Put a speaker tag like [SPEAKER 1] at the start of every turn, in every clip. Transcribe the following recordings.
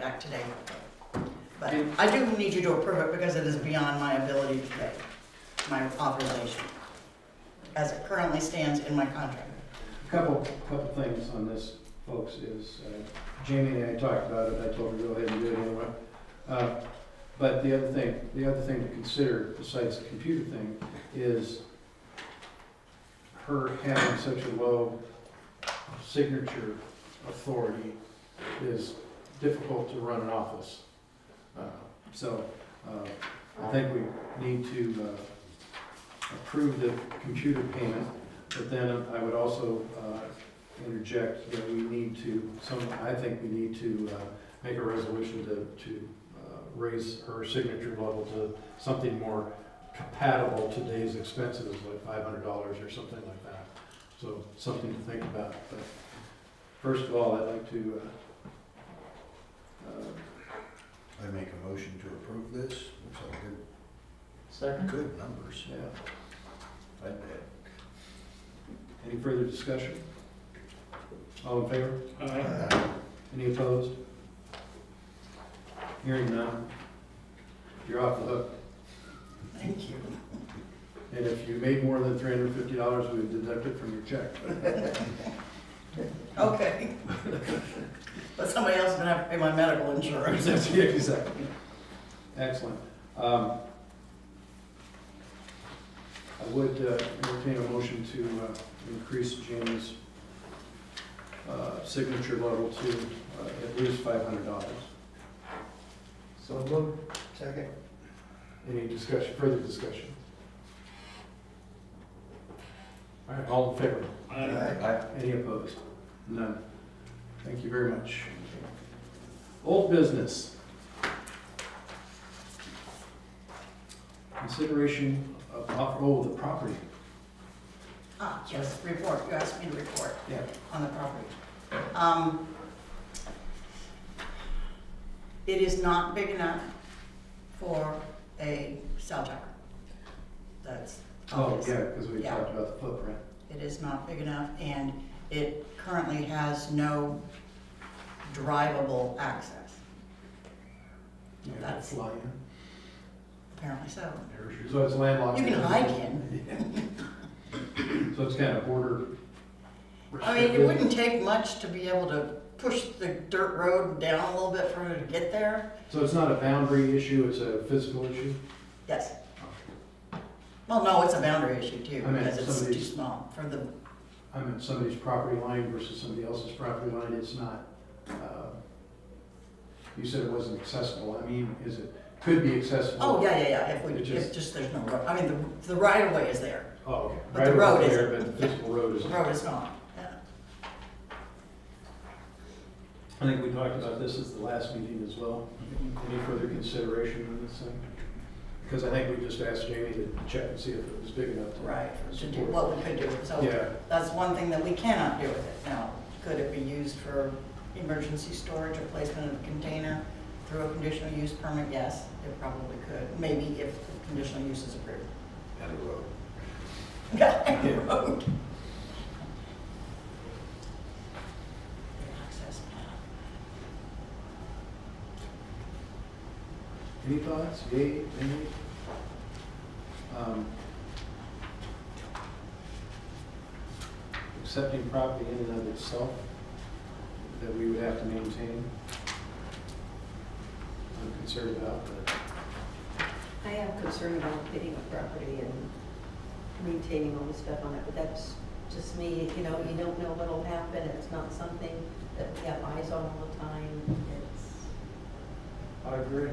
[SPEAKER 1] back today. But I do need you to approve it because it is beyond my ability to pay, my authorization, as it currently stands in my contract.
[SPEAKER 2] Couple, couple things on this, folks, is uh, Jamie and I talked about it, I told her to go ahead and do it anyway. Uh, But the other thing, the other thing to consider besides the computer thing is her having such a low signature authority is difficult to run an office. Uh, So uh, I think we need to uh, approve the computer payment but then I would also uh, interject that we need to, some, I think we need to uh, make a resolution to, to uh, raise her signature level to something more compatible to today's expenses, like five hundred dollars or something like that. So something to think about. But first of all, I'd like to, uh, uh,
[SPEAKER 3] I make a motion to approve this. Looks like good,
[SPEAKER 4] Second?
[SPEAKER 3] good numbers.
[SPEAKER 2] yeah,
[SPEAKER 3] I bet.
[SPEAKER 2] any further discussion? All in favor?
[SPEAKER 4] Aye.
[SPEAKER 2] Any opposed? Hearing none. You're off the hook.
[SPEAKER 1] Thank you.
[SPEAKER 2] And if you made more than three hundred and fifty dollars, we would deduct it from your check.
[SPEAKER 1] Okay. But somebody else is gonna have to pay my medical insurance.
[SPEAKER 2] Yeah, Exactly. Excellent. Um, I would uh, entertain a motion to uh, increase Jamie's uh, signature level to uh, at least five hundred dollars.
[SPEAKER 3] So move. Second.
[SPEAKER 2] Any discussion, further discussion? All right, all in favor?
[SPEAKER 3] Aye.
[SPEAKER 2] Any opposed? None. Thank you very much. Old business. Consideration of, off- oh, the property.
[SPEAKER 1] Ah, yes, report, you asked me to report.
[SPEAKER 2] Yeah.
[SPEAKER 1] on the property. Um, It is not big enough for a cell tower. That's
[SPEAKER 2] Oh,
[SPEAKER 1] obvious.
[SPEAKER 2] yeah, because we
[SPEAKER 1] Yeah.
[SPEAKER 2] talked about the footprint.
[SPEAKER 1] It is not big enough, and it currently has no drivable access.
[SPEAKER 2] Yeah,
[SPEAKER 1] That's-
[SPEAKER 2] fly in.
[SPEAKER 1] Apparently so.
[SPEAKER 2] So it's landlocked.
[SPEAKER 1] You can hike in.
[SPEAKER 2] So it's kind of border.
[SPEAKER 1] I mean, it
[SPEAKER 2] restricted.
[SPEAKER 1] wouldn't take much to be able to push the dirt road down a little bit for her to get there.
[SPEAKER 2] So it's not a boundary issue, it's a physical issue?
[SPEAKER 1] Yes. Well, no, it's a boundary issue too,
[SPEAKER 2] I mean,
[SPEAKER 1] because it's too
[SPEAKER 2] somebody's-
[SPEAKER 1] small for the,
[SPEAKER 2] I mean, somebody's property line versus somebody else's property line, it's not, uh, you said it wasn't accessible, I mean, is it, could be accessible?
[SPEAKER 1] oh, yeah, yeah, yeah, if we,
[SPEAKER 2] It
[SPEAKER 1] if
[SPEAKER 2] just-
[SPEAKER 1] just there's no road, I mean, the, the right of way is there,
[SPEAKER 2] Oh, okay.
[SPEAKER 1] But the
[SPEAKER 2] Right
[SPEAKER 1] road
[SPEAKER 2] over there,
[SPEAKER 1] isn't.
[SPEAKER 2] But the physical road is.
[SPEAKER 1] the road is not, yeah.
[SPEAKER 2] I think we talked about this at the last meeting as well. Any further consideration on this thing? Because I think we just asked Jamie to check and see if it was big enough. to-
[SPEAKER 1] Right, to do what we could do, so
[SPEAKER 2] Yeah,
[SPEAKER 1] that's one thing that we cannot do with it now. Could it be used for emergency storage or placement of a container through a conditional use permit? Yes, it probably could, maybe if the conditional use is approved.
[SPEAKER 3] And a road.
[SPEAKER 1] Goddamn road. Access path.
[SPEAKER 2] any thoughts, yay, nay? Um, Accepting property in and of itself that we would have to maintain. I'm concerned about, but.
[SPEAKER 5] I am concerned about getting a property and maintaining all the stuff on it, but that's just me, you know, you don't know what'll happen, it's not something that we have eyes on all the time, it's,
[SPEAKER 6] I agree.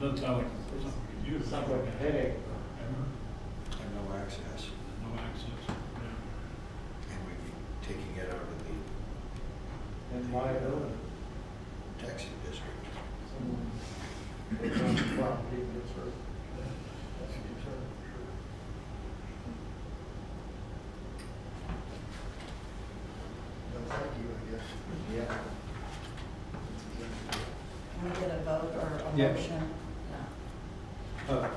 [SPEAKER 4] Doesn't sound like it's something we could use.
[SPEAKER 6] Sounds like a headache.
[SPEAKER 4] No
[SPEAKER 3] And no access.
[SPEAKER 4] access. Yeah.
[SPEAKER 3] And we'd be taking it out of the
[SPEAKER 6] And liability.
[SPEAKER 3] taxing district.
[SPEAKER 6] Someone takes on the property and gets hurt. That's a concern.
[SPEAKER 3] No, thank you, I guess. Yeah.
[SPEAKER 1] Can we get a vote or a
[SPEAKER 2] Yeah.
[SPEAKER 1] motion? Yeah.
[SPEAKER 2] Uh,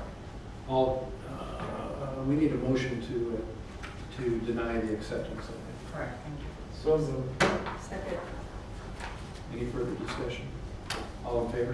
[SPEAKER 2] All, uh, we need a motion to, uh, to deny the acceptance of it.
[SPEAKER 1] Correct, thank you.
[SPEAKER 6] So moved.
[SPEAKER 5] second,
[SPEAKER 2] Any further discussion? All in favor?